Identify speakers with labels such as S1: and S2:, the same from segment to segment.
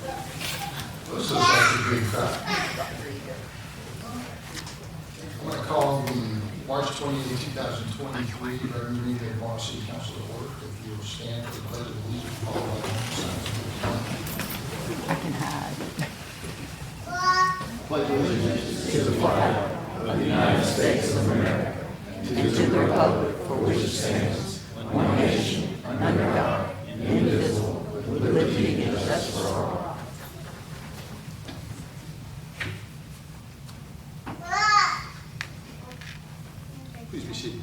S1: This is like a big crowd. I'm gonna call the March 28, 2023, regular meeting of Water City Council to order. If you'll stand for the pledge of allegiance, followed by the sign. Please be seated.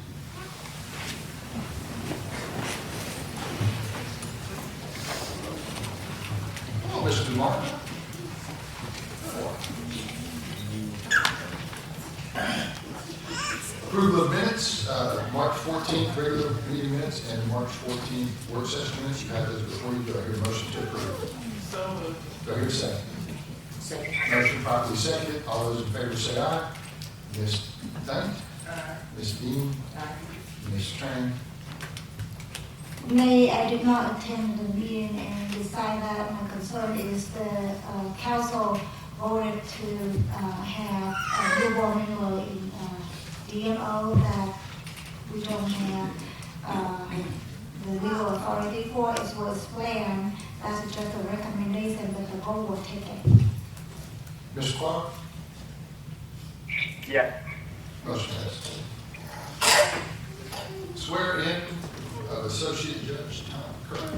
S1: Hello, Mr. Martin. Approval of minutes, uh, March 14th, regular meeting minutes, and March 14th, work session minutes. You have those before you. Do I hear a motion to approve? Do I hear a second?
S2: Second.
S1: Motion properly seconded. All those in favor say aye. Ms. Dunn? Ms. Dean?
S2: Aye.
S1: Ms. Strang?
S3: May, I did not attend the meeting and decide that my concern is the uh, council voted to uh, have a new warning law in uh, DMO that we don't have um, the legal authority for, it was planned, that's just a recommendation, but the board will take it.
S1: Ms. Clark?
S4: Yes.
S1: Motion passed. Swear in of Associate Judge Tom Kerr.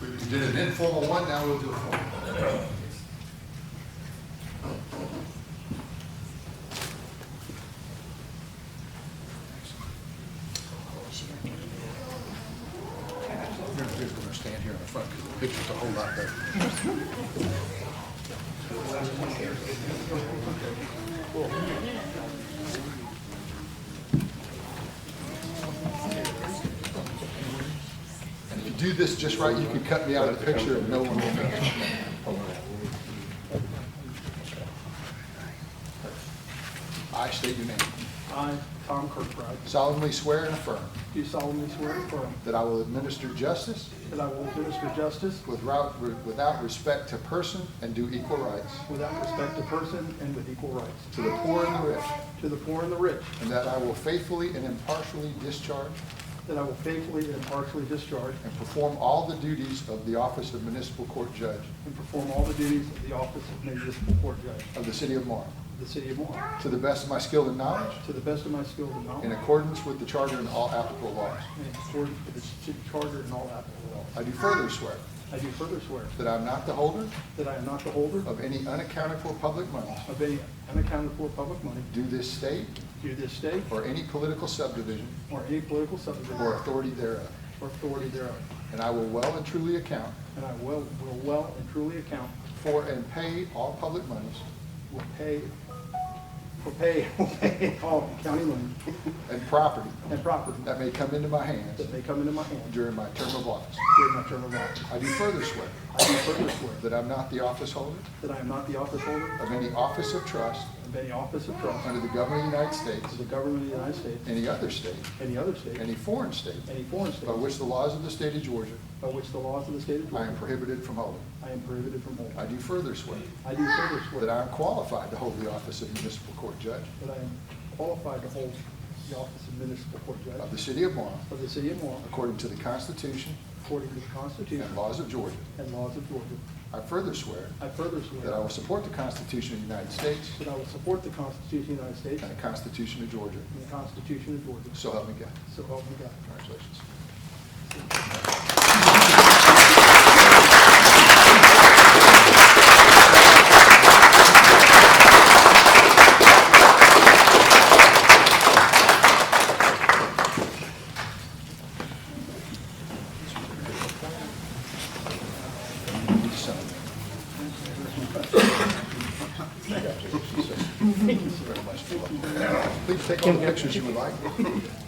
S1: We did an informal one, now we'll do a formal. We're gonna stand here in the front, because the picture's a whole lot better. And if you do this just right, you can cut me out of the picture and no one will know. I state your name.
S5: I, Tom Kirkbride,
S1: solemnly swear and affirm
S5: do solemnly swear and affirm
S1: that I will administer justice
S5: that I will administer justice
S1: without, without respect to person and do equal rights
S5: without respect to person and with equal rights,
S1: to the poor and the rich,
S5: to the poor and the rich,
S1: and that I will faithfully and impartially discharge
S5: that I will faithfully and impartially discharge
S1: and perform all the duties of the office of municipal court judge
S5: and perform all the duties of the office of municipal court judge
S1: of the city of Marl,
S5: of the city of Warren,
S1: to the best of my skill and knowledge,
S5: to the best of my skills and knowledge,
S1: in
S5: and
S1: accordance with the charter and all applicable laws.
S5: in accordance with the city charter and all applicable laws.
S1: I do further swear
S5: I do further swear
S1: that I am not the holder
S5: that I am not the holder
S1: of any unaccounted for public money
S5: of any unaccounted for public money
S1: due this state
S5: due this state
S1: or any political subdivision
S5: or any political
S1: or
S5: subdivision
S1: authority thereof,
S5: or authority thereof,
S1: and I will well and truly account
S5: and I will will well and truly account
S1: for and pay all public monies
S5: will pay, will pay, will pay all county land
S1: and property
S5: and property
S1: that may come into my hands
S5: that may come into my hand
S1: during my term of office.
S5: during my term of office.
S1: I do further swear
S5: I do further swear
S1: that I'm not the office holder
S5: that I am not the office holder
S1: of any office of trust
S5: of any office of trust
S1: under the government of the United
S5: of
S1: States,
S5: the government of the United States,
S1: any other state,
S5: any other state,
S1: any foreign state,
S5: any foreign
S1: by
S5: state,
S1: which the laws of the state of Georgia
S5: by which the laws of the state of
S1: I am
S5: Georgia,
S1: prohibited from holding.
S5: I am prohibited from holding.
S1: I do further swear
S5: I do further
S1: that
S5: swear that
S1: I am qualified to hold the office of municipal court judge
S5: I am qualified to hold the office of municipal court
S1: of
S5: judge
S1: the city of Marl
S5: of the city of Warren
S1: according to the Constitution
S5: according to the Constitution
S1: and laws of Georgia.
S5: and laws of Georgia.
S1: I further swear
S5: I further swear
S1: that I will support the Constitution of the United States
S5: that I will support the Constitution of the United States
S1: and the Constitution of Georgia.
S5: And the Constitution of Georgia.
S1: So help me God.
S5: So help me God.
S1: Congratulations. Please take all the pictures you would like.